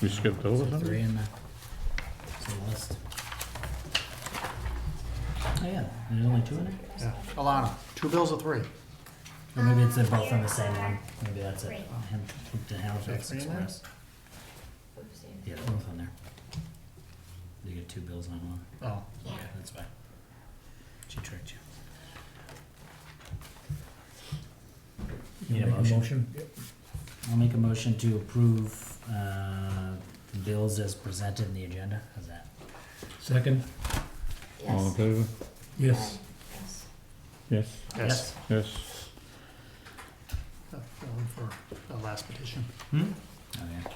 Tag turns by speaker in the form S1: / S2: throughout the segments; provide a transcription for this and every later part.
S1: We skipped
S2: Is
S1: over
S2: there
S1: something?
S2: three in the, is there a list? Oh, yeah, there's only two in it?
S3: Yeah. Alana, two bills or three?
S2: Or maybe it's they're both on the same one, maybe that's it.
S4: Three.
S2: Ham- The Halifax
S3: Three in there?
S2: Express,
S4: Oopsie.
S2: yeah, they're both on there. You get two bills on one,
S3: Oh,
S4: Yeah.
S2: yeah, that's fine. She tricked you. You
S5: Need a
S2: wanna make
S5: motion?
S2: I'll make a motion to approve, uh, bills as presented in the agenda, how's that?
S5: Second?
S1: All in favor?
S5: Yes.
S4: Yes.
S1: Yes,
S3: yes.
S1: yes.
S3: Uh, going For the last petition.
S2: Hmm? Oh, yeah.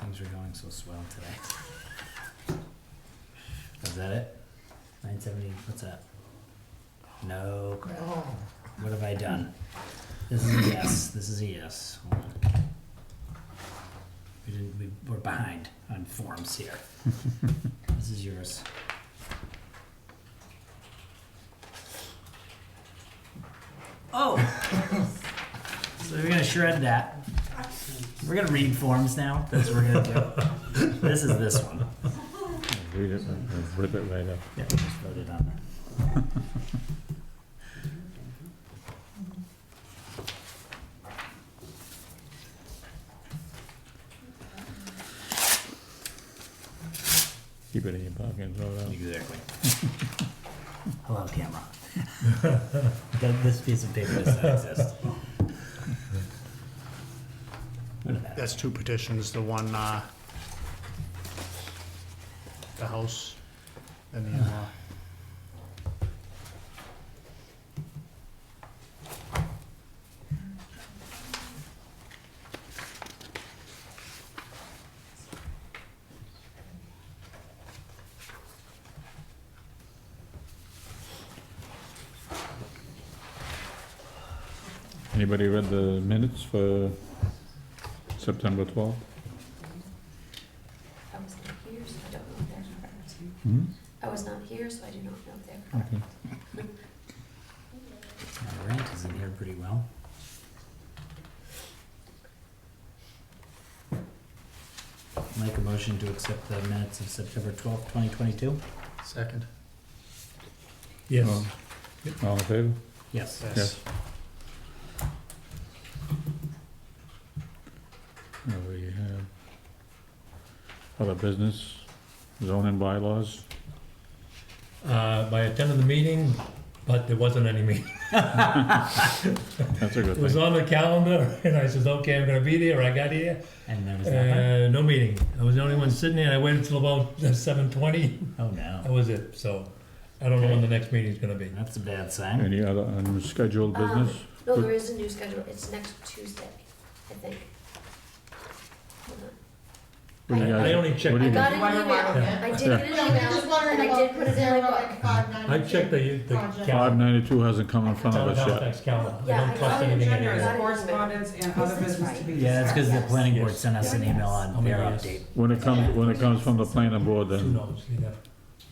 S2: Things are going so swell today. Is that it? Nine seventy, what's that? No crap,
S3: Oh,
S2: what have I done? This is a yes, this is a yes, hold on. We didn't, we, we're behind on forms here. This is yours. Oh! So we're gonna shred that. We're gonna read forms now, that's what we're gonna do. This is this one.
S1: I'll Read it, and I'll rip it right up.
S2: Yeah, we just voted on that.
S1: Keep it in your pocket and throw it out.
S2: Exactly. Hello, camera. That- this piece of paper does not exist.
S3: that's two petitions, the one, uh, the house and the in-law.
S1: Anybody read the minutes for September twelfth?
S4: I was not here, so I don't know if they're correct.
S1: Hmm?
S4: I was not here, so I do not know if they're correct.
S1: Okay.
S2: My rant is in here pretty well. Make a motion to accept the minutes of September twelfth, twenty twenty-two?
S3: Second,
S5: Yes.
S1: All- All in favor?
S2: Yes.
S3: yes.
S1: Now we have other business, zoning bylaws.
S5: Uh, I attended the meeting, but there wasn't any meeting.
S1: That's a good
S5: It was
S1: thing.
S5: on the calendar, and I says, okay, I'm gonna be there, I got here,
S2: And there was nothing?
S5: uh, no meeting. I was the only one sitting there, I waited till about seven twenty,
S2: Oh, no.
S5: that was it, so I don't know when the next meeting's gonna be.
S2: That's a bad sign.
S1: Any other unscheduled
S4: Um,
S1: business?
S4: No, there is a new schedule, it's next Tuesday, I think. Hold on.
S1: What do you
S5: I
S1: guys-
S5: only
S1: what
S5: checked,
S1: do you
S4: I got
S1: guys-
S4: an
S6: Wonder
S4: email,
S6: why we can't.
S4: I did get an
S6: No, I'm just
S4: email,
S6: wondering
S4: and I did
S6: about
S4: put it in my
S6: zero
S4: book.
S6: and five ninety-two.
S5: I checked the, the
S6: Project.
S1: Five
S5: calendar,
S1: ninety-two hasn't come in front of
S5: town of
S1: us yet.
S5: Halifax calendar,
S4: Yeah,
S5: I
S4: I
S5: don't
S4: got
S5: trust
S4: it in
S5: anything in
S4: January.
S5: it.
S4: Got it.
S6: correspondence and other
S4: Business
S6: business to be discussed.
S2: Yeah, it's because the planning board
S5: Yes.
S2: sent us an email on their
S5: Yes.
S2: update.
S1: When it comes, when it comes from the planning board,
S5: Who
S1: then
S5: knows, yeah,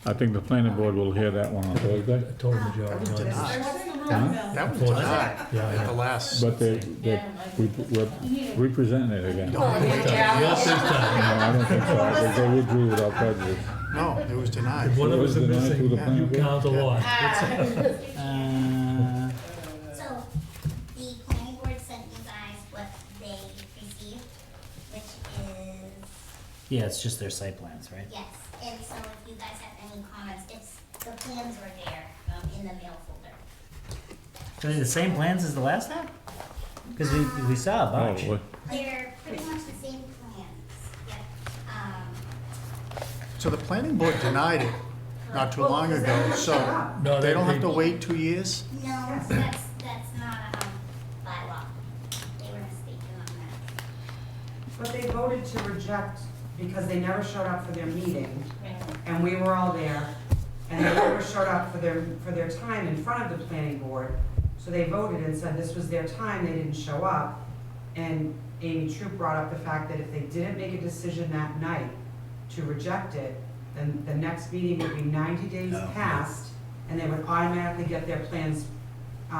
S1: I think the planning board will hear that one on
S5: a
S1: Thursday.
S5: total majority, no, it's-
S3: Denied.
S1: Huh?
S3: That was
S5: Well,
S3: denied
S5: yeah,
S3: at the
S5: yeah.
S3: last.
S1: But they, they, we, we're representing it again. No,
S4: Oh, yeah.
S5: Yes, this time.
S1: I don't think so. I think They withdrew without prejudice.
S3: No, it was denied.
S5: If one of us
S1: It
S5: is
S1: was denied through
S5: missing,
S1: the planning
S5: you
S1: board.
S5: count a lot.
S2: Uh,
S7: So, the planning board sent you guys what they received, which is,
S2: yeah, it's just their site plans, right?
S7: yes, and so if you guys have any comments, it's, the plans were there, um, in the mail folder.
S2: Are they the same plans as the last time? Because we, we saw a
S1: Oh,
S2: bunch.
S1: boy.
S7: They're pretty much the same plans, yep, um.
S3: So the planning board denied it not too long ago, so
S5: No,
S3: they
S5: they-
S3: don't have to
S5: they-
S3: wait two years?
S7: No, that's, that's not, um, bylaw, they were mistaken on that.
S6: But they voted to reject because they never showed up for their meeting,
S7: Right.
S6: and we were all there, and they never showed up for their, for their time in front of the planning board. So they voted and said this was their time, they didn't show up. And Amy Troop brought up the fact that if they didn't make a decision that night to reject it, then the next meeting would be ninety days
S2: Oh.
S6: past, and they would automatically get their plans